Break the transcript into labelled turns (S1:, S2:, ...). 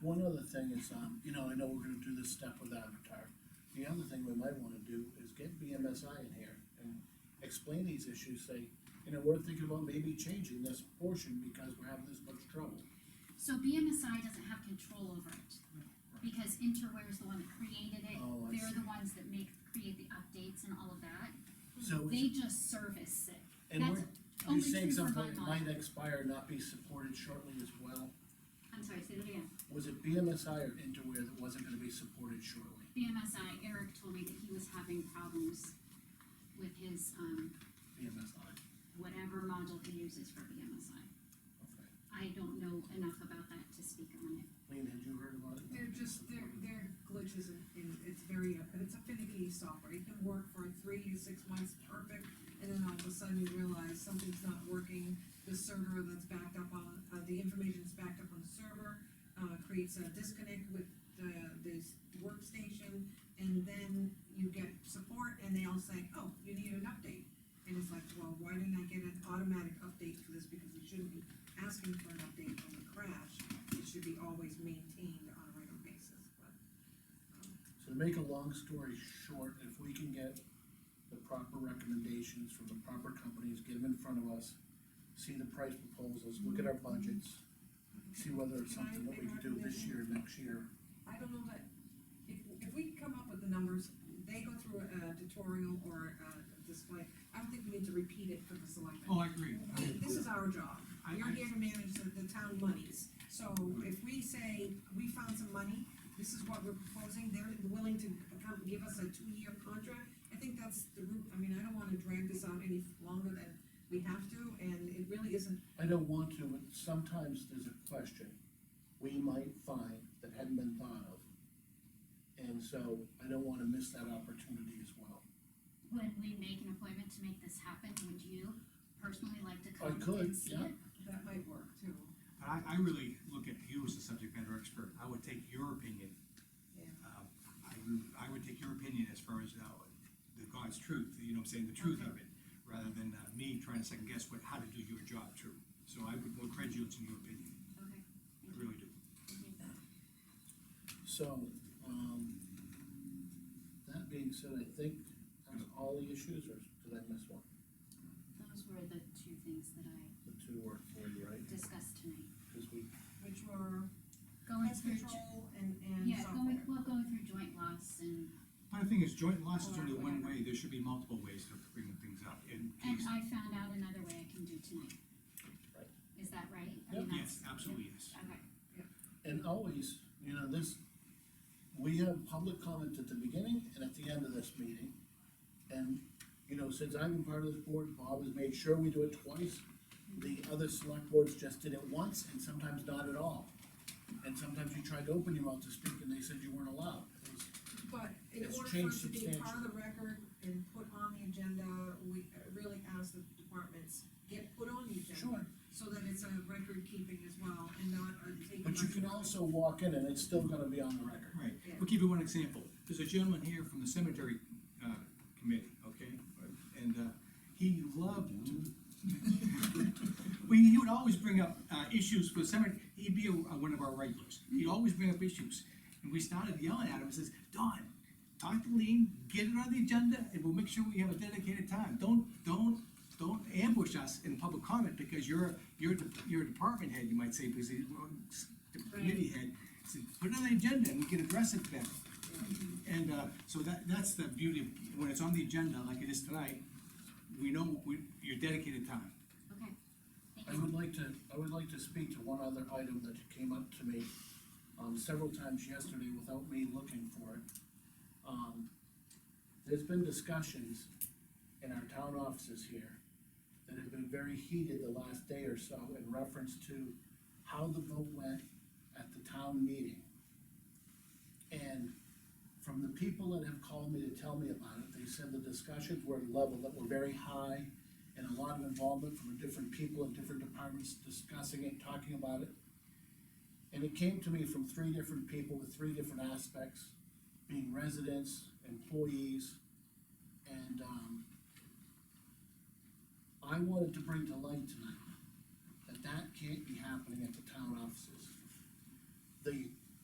S1: other thing is, um, you know, I know we're gonna do this step with Avatar. The other thing we might wanna do is get BMSI in here and explain these issues, say, you know, we're thinking about maybe changing this portion because we're having this much trouble.
S2: So BMSI doesn't have control over it, because Interware is the one that created it,
S1: Oh, I
S2: they're
S1: see.
S2: the ones that make, create the updates and all of that,
S1: So,
S2: Hmm, they just service it.
S1: and
S2: that's
S1: we're,
S2: only
S1: you're saying
S2: true for
S1: something that
S2: Vermont.
S1: might expire, not be supported shortly as well?
S2: I'm sorry, say that again.
S1: Was it BMSI or Interware that wasn't gonna be supported shortly?
S2: BMSI, Eric told me that he was having problems with his, um,
S1: BMSI,
S2: whatever module he uses for BMSI.
S1: okay.
S2: I don't know enough about that to speak on it.
S1: Lean, had you heard about it?
S3: They're just, they're, they're glitches and, and it's very, uh, it's a finicky software, it can work for three to six months perfect, and then all of a sudden you realize something's not working, the server that's backed up on, uh, the information's backed up on the server, uh, creates a disconnect with the, this workstation, and then you get support, and they all say, oh, you need an update. And it's like, well, why didn't I get an automatic update for this, because we shouldn't be asking for an update from the crash, it should be always maintained on a regular basis, but. um,
S1: So to make a long story short, if we can get the proper recommendations from the proper companies, get them in front of us, see the price proposals, look at our budgets, see whether it's something that we can do this year, next year.
S3: I don't know, but if, if we come up with the numbers, they go through a tutorial or a display, I don't think we need to repeat it for the selectmen.
S4: Oh, I agree. I-
S3: This is our job,
S4: I-
S3: you're here to manage the, the town monies, so if we say, we found some money, this is what we're proposing, they're willing to come, give us a two-year contract, I think that's the route, I mean, I don't wanna drag this out any longer than we have to, and it really isn't
S1: I don't want to, but sometimes there's a question we might find that hadn't been thought of. And so I don't wanna miss that opportunity as well.
S2: Would we make an appointment to make this happen? Would you personally like to come
S1: could,
S2: and see
S1: yeah.
S2: it?
S3: That might work too,
S4: But I, I really look at you as the subject matter expert. I would take your opinion.
S3: yeah.
S4: um, I would, I would take your opinion as far as, uh, the God's truth, you know what I'm saying, the truth of it, rather than uh, me trying to second guess what, how to do your job true. So I would more credulous in your opinion.
S2: Okay,
S4: I really do.
S2: thank you.
S1: So, um, that being said, I think that's all the issues, or did I miss one?
S2: Those were the two things that I
S1: The two or three, right?
S2: discussed tonight.
S1: Cause we,
S3: Which were
S2: Going
S3: pest
S2: through, jo-
S3: control and, and
S2: yeah,
S3: software.
S2: going, well, going through joint loss and,
S4: But the thing is, joint loss is
S2: Or
S4: only one
S2: whatever.
S4: way. There should be multiple ways to bring things up in
S2: and
S4: case.
S2: I found out another way I can do tonight.
S1: Right.
S2: Is that right? I
S1: Yep.
S2: mean, that's-
S4: Yes, absolutely, yes.
S2: Okay,
S1: and always, you know, this, we have public comment at the beginning and at the end of this meeting. And, you know, since I've been part of this board, Bob has made sure we do it twice. The other select boards just did it once and sometimes not at all. And sometimes you tried to open your mouth to speak and they said you weren't allowed. It was-
S3: But in
S1: It's
S3: order for
S1: changed
S3: it to be part of
S1: substantially.
S3: the record and put on the agenda, we uh, really ask that the departments get put on the agenda.
S1: Sure.
S3: So that it's a record keeping as well and not a taking.
S1: But you
S3: like-
S1: can also walk in and it's still gonna be on the record.
S4: Right,
S3: Yeah.
S4: we'll give you one example. There's a gentleman here from the cemetery, uh, committee, okay? And, uh, he loved to. Well, he would always bring up, uh, issues for cemetery, he'd be a- uh, one of our regulars. He'd always bring up issues. And we started yelling at him and says, Don, talk to Lean, get it on the agenda, and we'll make sure we have a dedicated time. Don't, don't, don't ambush us in public comment because you're, you're, de- you're a department head, you might say, because he's, committee head. Said, Put it on the agenda and we can address it then. And, uh, so that, that's the beauty, of when it's on the agenda like it is tonight, we know, we, you're dedicated time.
S2: okay.
S1: I
S2: Thank you.
S1: would like to, I would like to speak to one other item that came up to me, um, several times yesterday without me looking for it. Um, there's been discussions in our town offices here that have been very heated the last day or so in reference to how the vote went at the town meeting. And from the people that have called me to tell me about it, they said the discussions were at a level that were very high and a lot of involvement from different people in different departments discussing it, talking about it. And it came to me from three different people with three different aspects, being residents, employees, and, um, I wanted to bring to light tonight that that can't be happening at the town offices. The